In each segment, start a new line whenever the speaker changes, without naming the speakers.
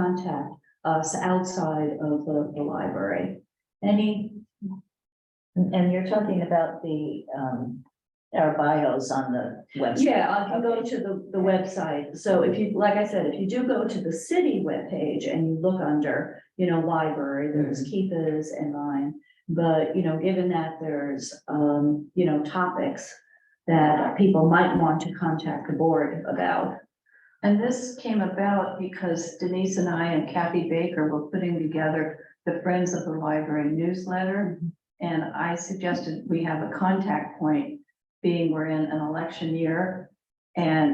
contact us outside of the, the library. Any,
And and you're talking about the, um, our bios on the website.
yeah, I can go to the, the website. So if you, like I said, if you do go to the city webpage and you look under, you know, library, there's Keith's and mine. But, you know, given that there's, um, you know, topics that people might want to contact the board about,
And this came about because Denise and I and Kathy Baker were putting together the Friends of the Library newsletter. And I suggested we have a contact point, being we're in an election year. And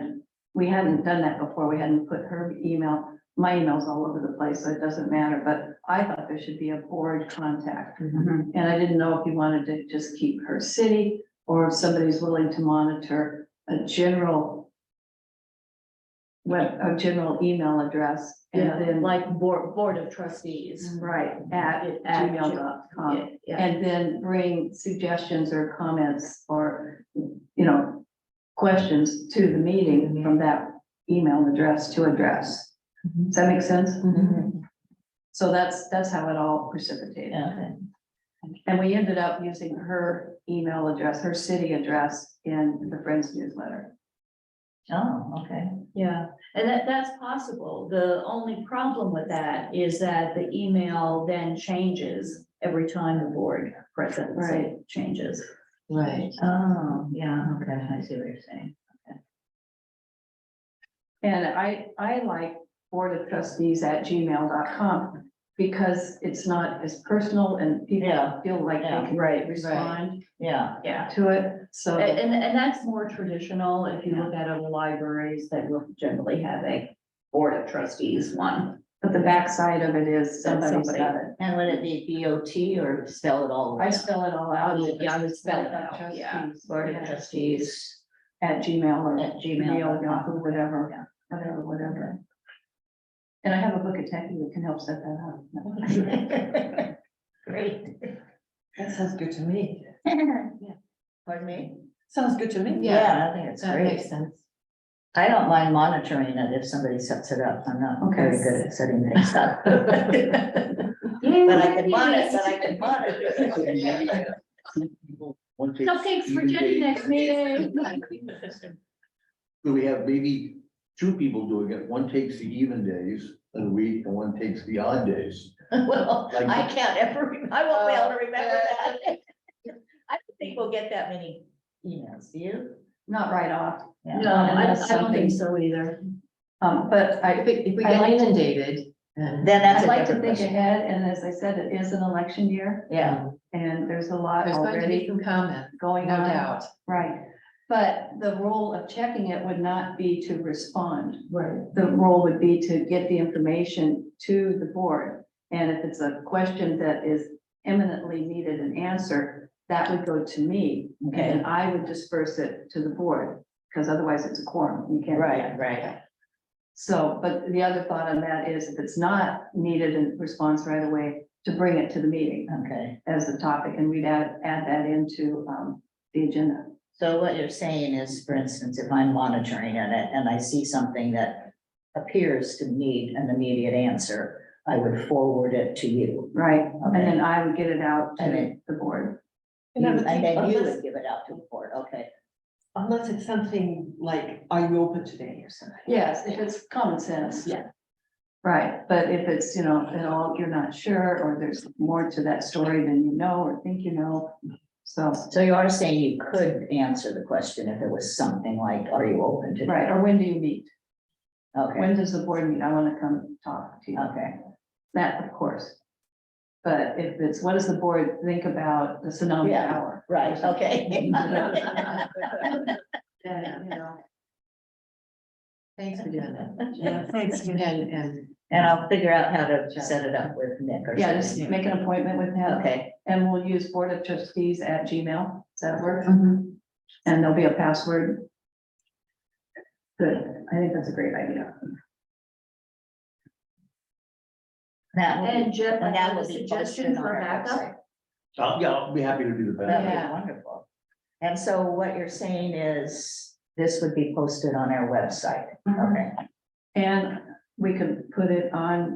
we hadn't done that before. We hadn't put her email, my email's all over the place, so it doesn't matter. But I thought there should be a board contact. And I didn't know if you wanted to just keep her city or if somebody's willing to monitor a general web, a general email address and
Yeah,
then
like
like
board, board of trustees.
right at
At
gmail.com.
Yeah,
And then bring suggestions or comments or, you know, questions to the meeting from that email address to address.
Mhm.
Does that make sense?
Mhm.
So that's, that's how it all precipitated.
Yeah.
And we ended up using her email address, her city address in the Friends newsletter.
Oh, okay.
yeah, and that, that's possible. The only problem with that is that the email then changes every time the board presence
Right.
changes.
Right. Oh, yeah, okay, I see what you're saying.
And I, I like board of trustees at gmail.com because it's not as personal and people
Yeah,
feel like
yeah,
they can
right, right.
respond
Yeah,
Yeah,
to it. So,
and, and, and that's more traditional if you look at other libraries that will generally have a board of trustees one.
but the backside of it is
That
somebody's
somebody-
got it.
and would it be B O T or spell it all?
I spell it all out.
Oh, Yeah, I would spell it out,
Trustees,
yeah.
Board of Trustees
At Gmail or.
at
Gmail, Yahoo,
Gmail.
whatever, whatever, whatever. And I have a book of tech that can help set that up.
Great.
That sounds good to me.
Pardon me?
Sounds good to me.
Yeah, I think it's
That
great.
makes sense.
I don't mind monitoring it if somebody sets it up. I'm not very
Okay.
good at setting things up. But I can monitor, but I can monitor.
Cupcakes for Jenny next meeting.
So we have maybe two people doing it, one takes the even days of the week and one takes the odd days.
Well,
Like-
I can't ever, rem- I won't be able to remember
Uh,
that. I don't think we'll get that many emails, do you?
Not right off,
Yeah.
No, I,
Unless
I don't
something-
think so either.
um, but I,
If we, if we
I
get
like to-
inundated, then.
Then that's
I'd
a
like to
different
think
question.
ahead, and as I said, it is an election year,
Yeah,
and there's a lot
There's going to be
already
some comment, no
going on.
doubt.
Right, but the role of checking it would not be to respond.
Right.
The role would be to get the information to the board. And if it's a question that is eminently needed an answer, that would go to me.
okay,
And I would disperse it to the board, because otherwise it's a quorum. You can't. do
right,
that.
right.
So, but the other thought on that is if it's not needed in response right away, to bring it to the meeting
Okay,
as the topic, and we'd add, add that into, um, the agenda.
so what you're saying is, for instance, if I'm monitoring it and I see something that appears to need an immediate answer, I would forward it to you.
Right, and
Okay.
then I would get it out
And
to
then-
the board.
You- And then you
Unless-
would give it out to the board, okay.
Unless it's something like, are you open today or something?
Yes, if it's common sense.
Yeah.
Right, but if it's, you know, at all, you're not sure, or there's more to that story than you know or think you know, so,
So you are saying you could answer the question if it was something like, are you open to?
right, or when do you meet?
Okay,
When does the board meet? I wanna come talk to you.
okay,
That, of course. But if it's, what does the board think about the tsunami
Yeah.
hour?
right, okay.
And, you know,
Thanks for doing that.
Yeah.
Thanks. And, and
And I'll figure out how to set it up with Nick or
Yeah, just
something.
make an appointment with him,
Okay,
and we'll use board of trustees at Gmail, does that work? And there'll be a password. Good, I think that's a great idea.
that would
And
be,
Jeff, I
and that
have a
would be posted
suggestion
on
for
our
backup.
website.
Uh, Yeah, I'll be happy to do the best.
That would
Yeah.
be wonderful. And so what you're saying is, this Mm-hmm. would be posted on our website, okay?
And we could put it on